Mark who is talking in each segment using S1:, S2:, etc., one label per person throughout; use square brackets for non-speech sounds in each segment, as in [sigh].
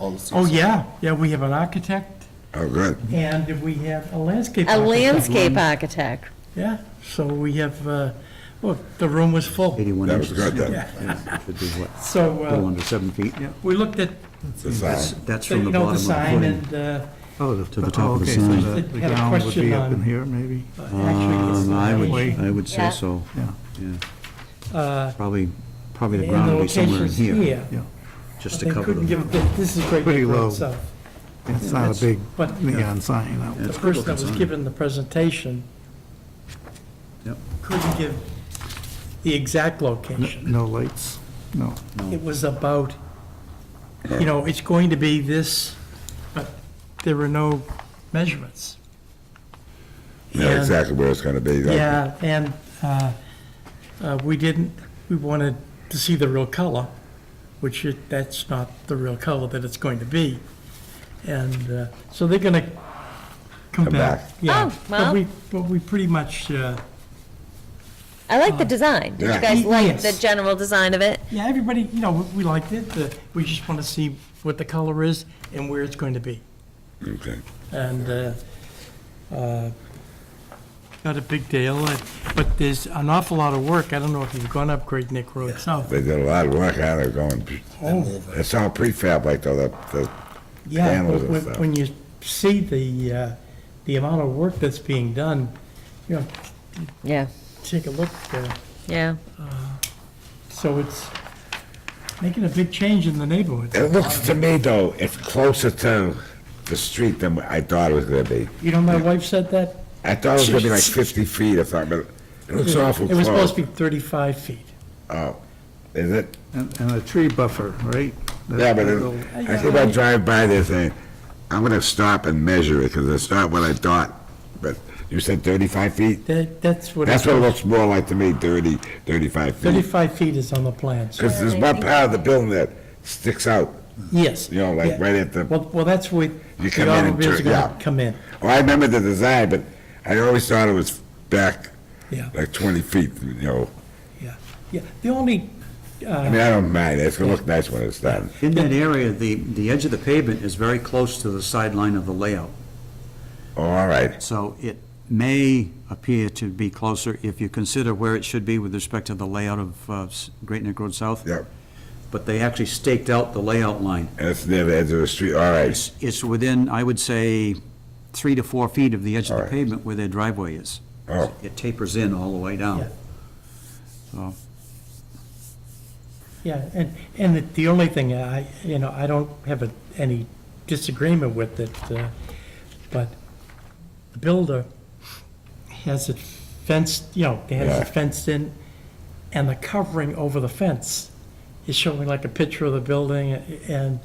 S1: all the seasons.
S2: Oh, yeah, yeah, we have an architect,
S3: Oh, good.
S2: and we have a landscape
S4: A
S2: architect.
S4: landscape architect.
S2: Yeah, so we have, uh, look, the room was full.
S5: 81
S3: That was
S5: inches.
S3: good then.
S5: Yeah, it Should be what, a
S2: So
S5: little
S2: uh,
S5: under seven feet? Yeah.
S2: we looked at,
S3: The sign.
S5: That's
S2: the-
S5: from
S2: you
S5: the
S2: know,
S5: bottom
S2: the
S5: of the
S2: sign
S5: footing.
S2: and uh,
S5: Oh, the- to the top of the
S6: Okay, so
S5: sign.
S6: the-
S2: Had
S6: The
S2: a
S6: ground would
S2: question
S6: be up
S2: on-
S6: in here, maybe?
S2: actually it's
S5: Um, I
S2: the
S5: would, I would say so,
S6: Yeah,
S5: yeah.
S2: uh,
S5: Probably, probably the
S2: and the
S5: ground would be somewhere in
S2: location's
S5: here,
S2: here.
S6: yeah.
S5: just
S2: They
S5: to cover
S2: couldn't
S5: them.
S2: give, a- this is great
S6: Pretty
S2: for
S6: low.
S2: itself.
S6: It's not
S2: That's-
S6: a big
S2: but-
S6: neon sign. no.
S5: Yeah.
S2: The
S5: It's a good
S2: person that was
S5: looking sign.
S2: given the presentation
S5: Yep.
S2: couldn't give the exact location.
S6: No lights, no.
S2: It was about, you know, it's going to be this, but there were no measurements.
S3: Yeah,
S2: And-
S3: exactly where it's gonna be. That-
S2: Yeah, and uh, uh, we didn't, we wanted to see the real color, which it- that's not the real color that it's going to be. And uh, so they're going to come
S3: Come
S2: back.
S3: back.
S2: Yeah.
S4: Oh, well.
S2: But we, but we pretty much, uh,
S4: I like the design. Did
S3: Oh. Yeah.
S4: you guys like the
S2: Yes.
S4: general design of it?
S2: yeah, everybody, you know, we- we liked it. The- We just want to see what the color is and where it's going to be.
S3: Okay.
S2: and uh, uh, not a big deal, uh, but there's an awful lot of work. I don't know if you've gone up Great Neck Road South.
S3: They did a lot of work out there going,
S2: Oh,
S3: it's all prefab like though, the, the,
S2: yeah,
S3: panels and
S2: when-
S3: stuff.
S2: when you see the, uh, the amount of work that's being done, you know,
S4: Yeah,
S2: take a look. uh,
S4: yeah.
S2: So it's making a big change in the neighborhood.
S3: it looks to me though, it's closer to the street than I thought it was gonna be.
S2: You know, my wife said that.
S3: I thought it was gonna be like fifty feet or something, but it looks awful
S2: It was supposed to
S3: close.
S2: be 35 feet.
S3: Oh, is it?
S6: And, and a tree buffer, right?
S3: Yeah, but
S6: That'll-
S3: it- I think I drive by there saying, I'm gonna stop and measure it, because it's not what I thought. But you said thirty-five feet?
S2: That, that's what,
S3: That's
S2: it-
S3: what it looks more like to me, 30, 35 feet.
S2: 35 feet is on the plans.
S3: Because there's one part of the building that sticks out,
S2: Yes.
S3: you know, like
S2: yeah.
S3: right at the,
S2: Well, well, that's where
S3: You
S2: the
S3: come in and
S2: automobiles are
S3: turn-
S2: gonna
S3: yeah.
S2: come in,
S3: oh, I remember the design, but I always thought it was back
S2: yeah,
S3: like twenty feet, you know.
S2: yeah, yeah. The only, uh,
S3: I mean, I don't mind, it's gonna look nice when it's done.
S5: In that area, the, the edge of the pavement is very close to the sideline of the layout.
S3: Oh, all right,
S5: So it may appear to be closer if you consider where it should be with respect to the layout of uh, S- Great Neck Road South.
S3: Yep.
S5: But they actually staked out the layout line.
S3: and it's near the edge of the street, all right,
S5: It's, it's within, I would say, three to four feet of the edge of
S3: All
S5: the
S3: right.
S5: pavement where their driveway is.
S3: Oh.
S5: It tapers in all the way
S2: Yeah.
S5: down. So,
S2: yeah, and, and the- the only thing I, you know, I don't have a- any disagreement with it, uh, but the builder has it fenced, you know, has
S3: Yeah.
S2: it fenced in, and the covering over the fence is showing like a picture of the building, and,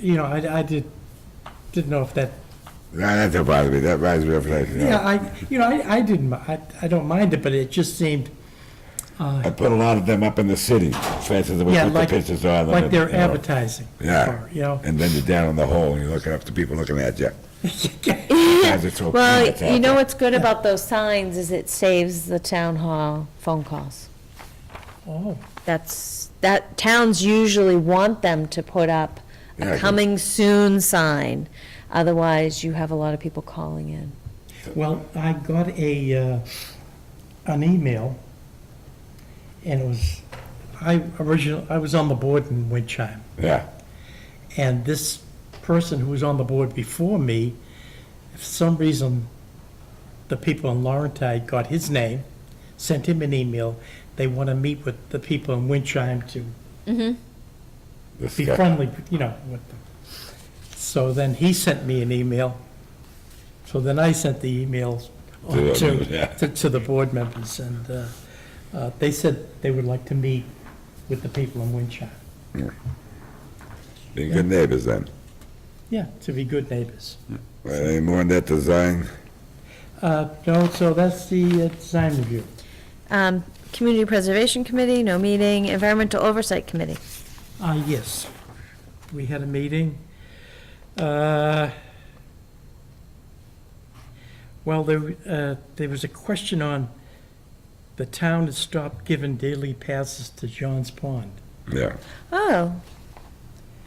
S2: you know, I, I did, didn't know if that
S3: Nah, that don't bother me, that reminds me of like, you know.
S2: Yeah, I, you know, I, I didn't, mi- I, I don't mind it, but it just seemed,
S3: I put a lot of them up in the city, fences with
S2: yeah,
S3: with the
S2: like,
S3: pictures on them.
S2: like
S3: and,
S2: they're
S3: you know.
S2: advertising.
S3: Yeah,
S2: for, You know,
S3: and then you're down in the hole, and you're looking up to people looking
S2: [laughs]
S3: at you. Guys are so
S4: Well,
S3: peanuts out
S4: you know
S3: there.
S4: what's good about those signs is it saves the town hall phone calls.
S2: oh,
S4: That's, that, towns usually want them to put up
S3: Yeah, I
S4: a
S3: agree.
S4: coming soon sign. Otherwise, you have a lot of people calling in.
S2: well, I got a, uh, an email, and it was, I original, I was on the board in Winchime,
S3: Yeah,
S2: and this person who was on the board before me, for some reason, the people in Laurentide got his name, sent him an email, they want to meet with the people in Winchime to
S3: this
S2: be
S3: guy.
S2: friendly, you know, with them. So then he sent me an email. So then I sent the emails on
S3: To them, yeah.
S2: to, to- to the board members, and uh, uh, they said they would like to meet with the people in Winchester.
S3: Being good neighbors then.
S2: Yeah, to be good neighbors.
S3: Right, Any more on that design?
S2: Uh, No, so that's the uh, design review.
S4: Um, Community Preservation Committee, no meeting. Environmental Oversight Committee.
S2: Uh, yes, we had a meeting. Uh, Well, there, uh, there was a question on, the town has stopped giving daily passes to John's Pond.
S3: Yeah,
S4: Oh,